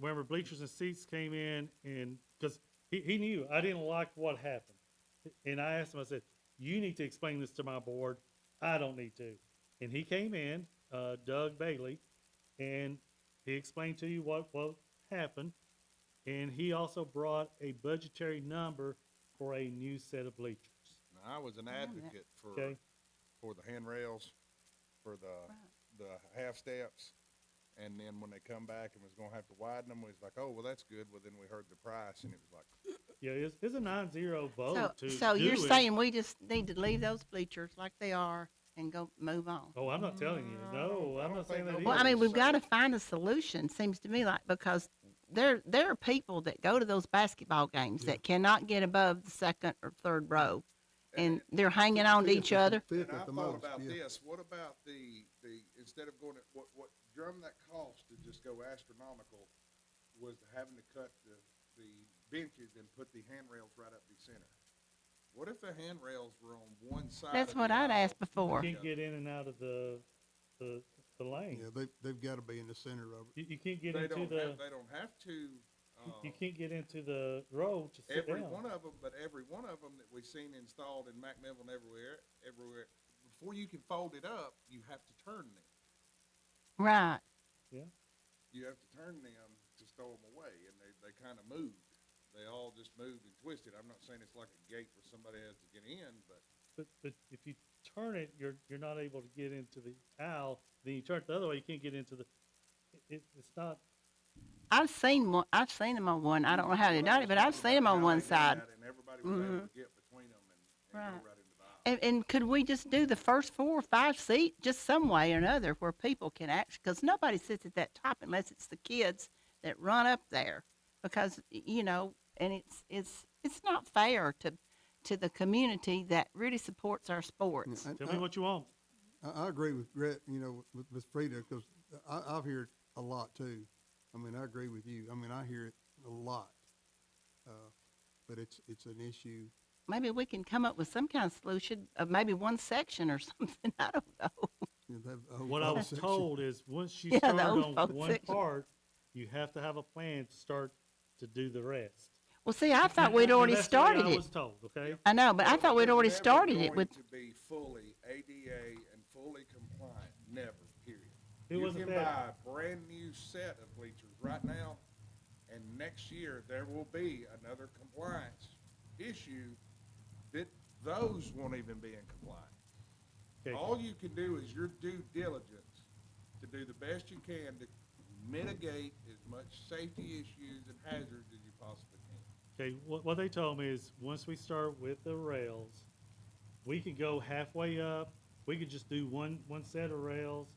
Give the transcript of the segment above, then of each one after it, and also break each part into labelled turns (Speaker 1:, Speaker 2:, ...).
Speaker 1: remember bleachers and seats came in and, because he, he knew I didn't like what happened. And I asked him, I said, you need to explain this to my board. I don't need to. And he came in, uh, Doug Bailey, and he explained to you what, what happened. And he also brought a budgetary number for a new set of bleachers.
Speaker 2: Now, I was an
Speaker 3: Wait a minute.
Speaker 2: advocate for,
Speaker 1: Okay,
Speaker 2: for the handrails, for the, the half steps. And then when they come back and was gonna have to widen them, we was like, oh, well, that's good. Well, then we heard the price and it was like,
Speaker 1: yeah, it's, it's a nine zero
Speaker 3: So,
Speaker 1: vote to do it.
Speaker 3: so you're saying we just need to leave those bleachers like they are and go move on?
Speaker 1: Oh, I'm not telling you.
Speaker 2: No,
Speaker 1: No,
Speaker 2: Mm, I
Speaker 1: I'm
Speaker 2: don't
Speaker 1: not saying
Speaker 2: think
Speaker 1: that
Speaker 2: nobody-
Speaker 1: either.
Speaker 3: Well, I mean, we've
Speaker 2: so-
Speaker 3: got to find a solution, seems to me like, because there, there are people that go to those basketball games that cannot get above the second or third row. And they're hanging on to each other.
Speaker 4: Fifth
Speaker 2: And I
Speaker 4: at the
Speaker 2: thought
Speaker 4: most,
Speaker 2: about
Speaker 4: yeah.
Speaker 2: this, what about the, the, instead of going, to- what, what drum that cost to just go astronomical was having to cut the, the benches and put the handrails right up the center. What if the handrails were on one side?
Speaker 3: That's
Speaker 2: of the
Speaker 3: what I'd
Speaker 2: aisle?
Speaker 3: asked before.
Speaker 1: You can't get in and out of the, the, the lane.
Speaker 4: Yeah, they, they've gotta be in the center of it.
Speaker 1: You, you can't get
Speaker 2: They
Speaker 1: into
Speaker 2: don't
Speaker 1: the,
Speaker 2: have, they don't have to,
Speaker 1: you- you
Speaker 2: uh,
Speaker 1: can't get into the road to sit
Speaker 2: every one
Speaker 1: down.
Speaker 2: of them, but every one of them that we've seen installed in Macmillan everywhere, everywhere, before you can fold it up, you have to turn them.
Speaker 3: Right.
Speaker 2: you have to turn them to stow them away, and they, they kind of moved. They all just moved and twisted. I'm not saying it's like a gate where somebody has to get in, but
Speaker 1: But, but if you turn it, you're, you're not able to get into the aisle, then you turn it the other way, you can't get into the, it- it, it's not,
Speaker 3: I've seen one, I've seen them on one. I don't know how they done it, but I've seen them on
Speaker 2: How
Speaker 3: one
Speaker 2: they did
Speaker 3: side.
Speaker 2: that, And everybody was able
Speaker 3: Mhm.
Speaker 2: to get between them and, and
Speaker 3: Right.
Speaker 2: go right into the aisle.
Speaker 3: And, and could we just do the first four or five seat just some way or another where people can actually, because nobody sits at that top unless it's the kids that run up there. Because, y- you know, and it's, it's, it's not fair to, to the community that really supports our
Speaker 4: Yeah,
Speaker 3: sports.
Speaker 4: and
Speaker 1: tell
Speaker 4: I-
Speaker 1: me what you want.
Speaker 4: I, I agree with Brett, you know, with, with Frida, because I, I've heard a lot too. I mean, I agree with you. I mean, I hear it a lot. Uh, but it's, it's an issue.
Speaker 3: Maybe we can come up with some kind of solution of maybe one section or something. I don't know.
Speaker 4: you know, that whole
Speaker 1: What I
Speaker 4: phone
Speaker 1: was
Speaker 4: section.
Speaker 1: told is, once you
Speaker 3: Yeah, the
Speaker 1: start
Speaker 3: old
Speaker 1: on
Speaker 3: folks
Speaker 1: one
Speaker 3: section.
Speaker 1: part, you have to have a plan to start to do the rest.
Speaker 3: Well, see, I thought
Speaker 1: And-
Speaker 3: we'd
Speaker 1: and
Speaker 3: already
Speaker 1: that's the way
Speaker 3: started
Speaker 1: I
Speaker 3: it.
Speaker 1: was told, okay?
Speaker 3: I know, but I thought we'd
Speaker 2: It's
Speaker 3: already
Speaker 2: never
Speaker 3: started it
Speaker 2: going
Speaker 3: with,
Speaker 2: To be fully ADA and fully compliant, never, period.
Speaker 1: It
Speaker 2: You
Speaker 1: wasn't
Speaker 2: can
Speaker 1: that-
Speaker 2: buy a brand new set of bleachers right now, and next year there will be another compliance issue that those won't even be in compliance.
Speaker 1: Okay.
Speaker 2: All you can do is your due diligence to do the best you can to mitigate as much safety issues and hazards as you possibly can.
Speaker 1: Okay, what, what they told me is, once we start with the rails, we could go halfway up, we could just do one, one set of rails.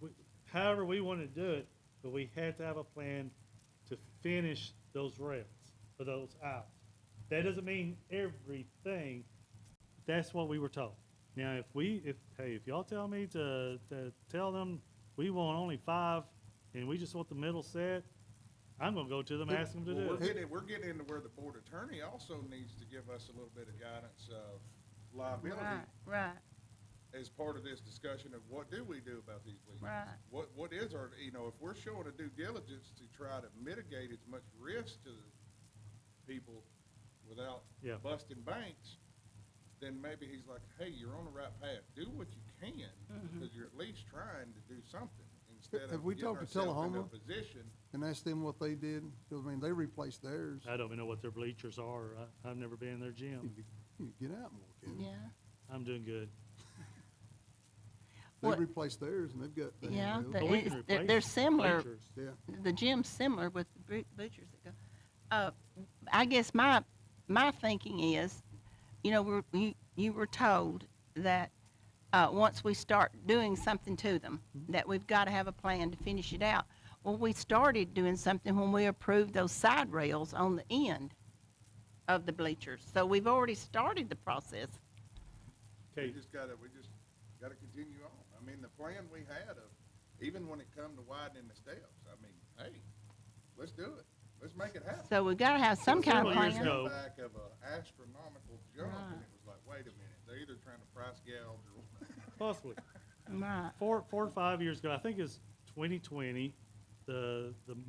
Speaker 1: we- However we want to do it, but we had to have a plan to finish those rails, for those out. That doesn't mean everything, that's what we were told. Now, if we, if, hey, if y'all tell me to, to tell them we want only five, and we just want the middle set, I'm gonna go to them, and ask them to do
Speaker 2: Well,
Speaker 1: it.
Speaker 2: We're getting, we're getting into where the board attorney also needs to give us a little bit of guidance of
Speaker 3: right,
Speaker 2: liability
Speaker 3: right,
Speaker 2: as part of this discussion of what do we do about these leaks?
Speaker 3: right.
Speaker 2: What, what is our, you know, if we're showing a due diligence to try to mitigate as much risk to the people without
Speaker 1: Yeah.
Speaker 2: busting banks, then maybe he's like, hey, you're on the right path. Do what you can,
Speaker 3: Mm-hmm.
Speaker 2: because you're at least trying to do something instead
Speaker 4: Have
Speaker 2: of
Speaker 4: we
Speaker 2: getting
Speaker 4: talked to
Speaker 2: ourselves in a
Speaker 4: Tullahoma?
Speaker 2: position.
Speaker 4: And ask them what they did, 'cause, I mean, they replaced theirs.
Speaker 1: I don't even know what their bleachers are. I, I've never been in their
Speaker 4: You
Speaker 1: gym.
Speaker 4: could- you could Get out more, Kevin.
Speaker 3: Yeah,
Speaker 1: I'm doing good.
Speaker 4: They
Speaker 3: What-
Speaker 4: replaced theirs and they've got. the
Speaker 3: yeah,
Speaker 4: handheld.
Speaker 3: but
Speaker 1: But we
Speaker 3: it's-
Speaker 1: can
Speaker 3: they're,
Speaker 1: replace
Speaker 3: they're
Speaker 1: the
Speaker 3: similar.
Speaker 1: bleachers.
Speaker 4: Yeah.
Speaker 3: The gym's similar with the bu- butchers that go. Uh, I guess my my thinking is, you know, we're, you you were told that uh, once we start doing something to them, that we've got to have a plan to finish it out. Well, we started doing something when we approved those side rails on the end of the bleachers. So we've already started the process.
Speaker 2: We
Speaker 1: Okay,
Speaker 2: just gotta, we just gotta continue on. I mean, the plan we had of, even when it come to widening the steps, I mean, hey, let's do it. Let's make it happen.
Speaker 3: So we've got to have some kind of
Speaker 1: Several years
Speaker 3: plan.
Speaker 1: ago-
Speaker 2: Came Back of a astronomical jump, and
Speaker 3: Right.
Speaker 2: it was like, wait a minute, they're either trying to price gouge or.
Speaker 1: possibly.
Speaker 3: Right.
Speaker 1: Four, four or five years ago, I think it's 2020, the, the